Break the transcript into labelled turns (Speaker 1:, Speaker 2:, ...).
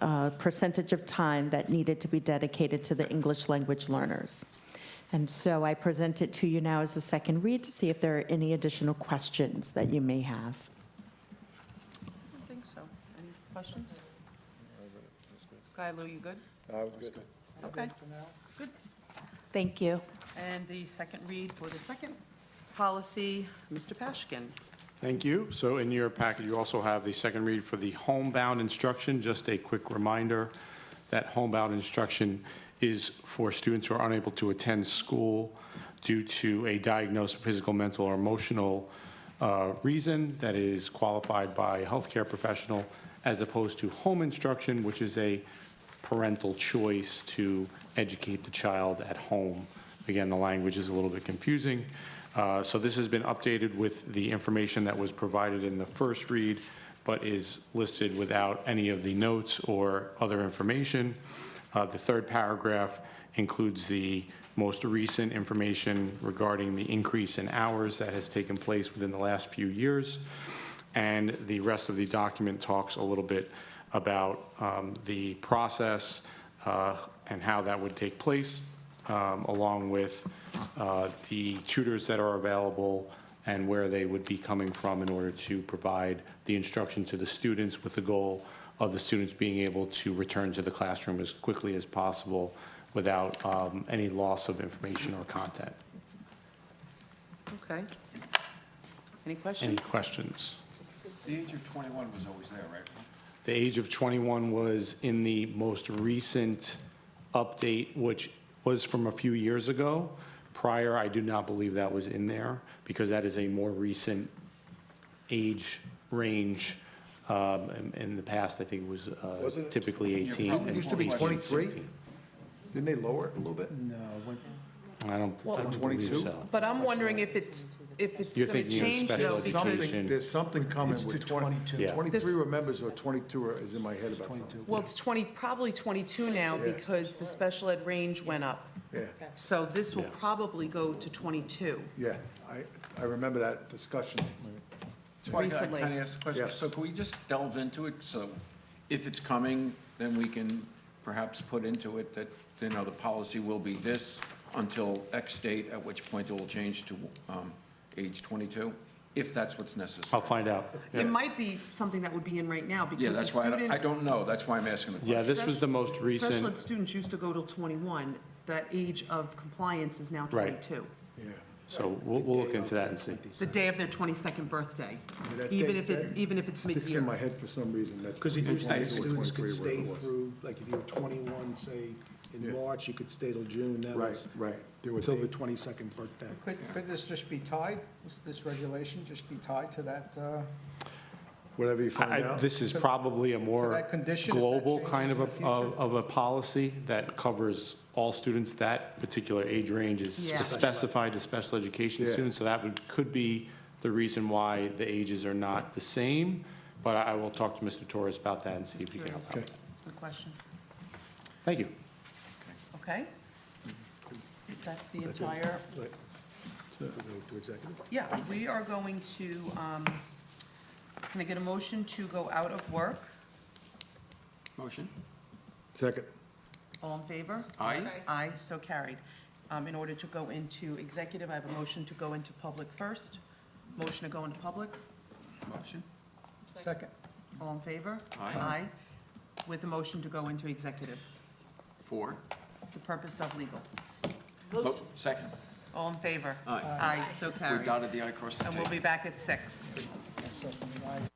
Speaker 1: uh, percentage of time that needed to be dedicated to the English language learners. And so I present it to you now as a second read to see if there are any additional questions that you may have.
Speaker 2: I think so. Any questions? Guy Lou, you good?
Speaker 3: I was good.
Speaker 2: Okay.
Speaker 1: Thank you.
Speaker 2: And the second read for the second policy, Mr. Pashkin.
Speaker 4: Thank you. So in your packet, you also have the second read for the homebound instruction. Just a quick reminder that homebound instruction is for students who are unable to attend school due to a diagnosed physical, mental, or emotional uh, reason that is qualified by a healthcare professional, as opposed to home instruction, which is a parental choice to educate the child at home. Again, the language is a little bit confusing. Uh, So this has been updated with the information that was provided in the first read, but is listed without any of the notes or other information. Uh, The third paragraph includes the most recent information regarding the increase in hours that has taken place within the last few years. And the rest of the document talks a little bit about um, the process uh, and how that would take place, um, along with uh, the tutors that are available and where they would be coming from in order to provide the instruction to the students with the goal of the students being able to return to the classroom as quickly as possible without um, any loss of information or content.
Speaker 2: Okay. Any
Speaker 4: Any
Speaker 2: questions?
Speaker 4: questions?
Speaker 3: The age of 21 was always there, right?
Speaker 4: The age of 21 was in the most recent update, which was from a few years ago. Prior, I do not believe that was in there, because that is a more recent age range. Um, In in the past, I think it was uh,
Speaker 3: Wasn't it-
Speaker 4: typically
Speaker 3: you're
Speaker 4: 18.
Speaker 3: probably-
Speaker 4: and
Speaker 3: Used to be
Speaker 4: 18,
Speaker 5: 23?
Speaker 4: 16.
Speaker 5: Didn't they lower it a little bit? No.
Speaker 4: I don't, I don't believe
Speaker 5: 22?
Speaker 4: so.
Speaker 2: But I'm wondering if it's, if it's
Speaker 4: You're
Speaker 2: going to
Speaker 4: thinking of
Speaker 2: change
Speaker 4: special
Speaker 2: though, because,
Speaker 4: education.
Speaker 5: Something, there's something coming
Speaker 6: It's
Speaker 5: with
Speaker 6: to
Speaker 5: 22.
Speaker 4: Yeah.
Speaker 5: 23 remembers or 22 is in my head about something.
Speaker 2: well, it's 20, probably 22 now
Speaker 5: Yeah.
Speaker 2: because the special ed range went up.
Speaker 5: Yeah,
Speaker 2: So this will
Speaker 4: Yeah.
Speaker 2: probably go to 22.
Speaker 5: yeah. I, I remember that discussion.
Speaker 3: That's why I
Speaker 2: Recently.
Speaker 3: kind of asked the question.
Speaker 5: Yes.
Speaker 3: So can we just delve into it? So if it's coming, then we can perhaps put into it that, you know, the policy will be this until X date, at which point it will change to um, age 22, if that's what's
Speaker 4: I'll
Speaker 3: necessary.
Speaker 4: find out.
Speaker 2: It might be something that would be in right now
Speaker 3: Yeah,
Speaker 2: because the
Speaker 3: that's why, I don't- I
Speaker 2: student,
Speaker 3: don't know. That's why I'm asking the question.
Speaker 4: Yeah, this was the most
Speaker 2: special ed
Speaker 4: recent,
Speaker 2: students used to go till 21. The age of compliance is now
Speaker 4: Right.
Speaker 2: 22.
Speaker 5: Yeah.
Speaker 4: so we'll, we'll look into that and see.
Speaker 2: The day of their 22nd birthday,
Speaker 5: that
Speaker 2: even
Speaker 5: day-
Speaker 2: if it,
Speaker 5: that
Speaker 2: even if it's
Speaker 5: Sticks in my
Speaker 2: mid-year.
Speaker 5: head for some reason. that
Speaker 6: Because you do
Speaker 5: 22 or
Speaker 6: think students
Speaker 5: 23,
Speaker 6: could
Speaker 5: whatever
Speaker 6: stay
Speaker 5: it was.
Speaker 6: through, like if you were 21, say,
Speaker 5: Yeah.
Speaker 6: in March, you could stay till June. That
Speaker 5: Right,
Speaker 6: was
Speaker 5: right. There were
Speaker 6: Till the
Speaker 5: dates.
Speaker 6: 22nd birthday.
Speaker 7: Could, could this just be tied, This- this regulation just be tied to that, uh,
Speaker 5: Whatever you find
Speaker 4: I- I-
Speaker 5: out.
Speaker 4: This is probably a more
Speaker 7: that condition, if that
Speaker 4: global
Speaker 7: changes
Speaker 4: kind of,
Speaker 7: in
Speaker 4: a-
Speaker 7: the
Speaker 4: of
Speaker 7: future?
Speaker 4: of a policy that covers all students. That particular age range is
Speaker 2: Yeah.
Speaker 4: specified to special education
Speaker 5: Yeah.
Speaker 4: students, so that would, could be the reason why the ages are not the same. But I I will talk to Mr. Torres about that and see if he can help out.
Speaker 5: Okay.
Speaker 2: Good question.
Speaker 4: Thank you.
Speaker 2: Okay? That's the entire,
Speaker 5: Right. So, go to executive.
Speaker 2: yeah, we are going to, um, can I get a motion to go out of work?
Speaker 3: Motion?
Speaker 5: Second.
Speaker 2: All in favor?
Speaker 3: Aye.
Speaker 2: Aye, so carried. Um, In order to go into executive, I have a motion to go into public first. Motion to go into public?
Speaker 3: Motion?
Speaker 7: second?
Speaker 2: All in favor?
Speaker 3: Aye.
Speaker 2: Aye. With a motion to go into executive,
Speaker 3: Four?
Speaker 2: the purpose of legal.
Speaker 3: Motion. Second.
Speaker 2: All in favor?
Speaker 3: Aye.
Speaker 2: Aye, so
Speaker 3: We
Speaker 2: carried.
Speaker 3: dotted the i, crossed the t.
Speaker 2: And we'll be back at six.
Speaker 7: Yes, second, right.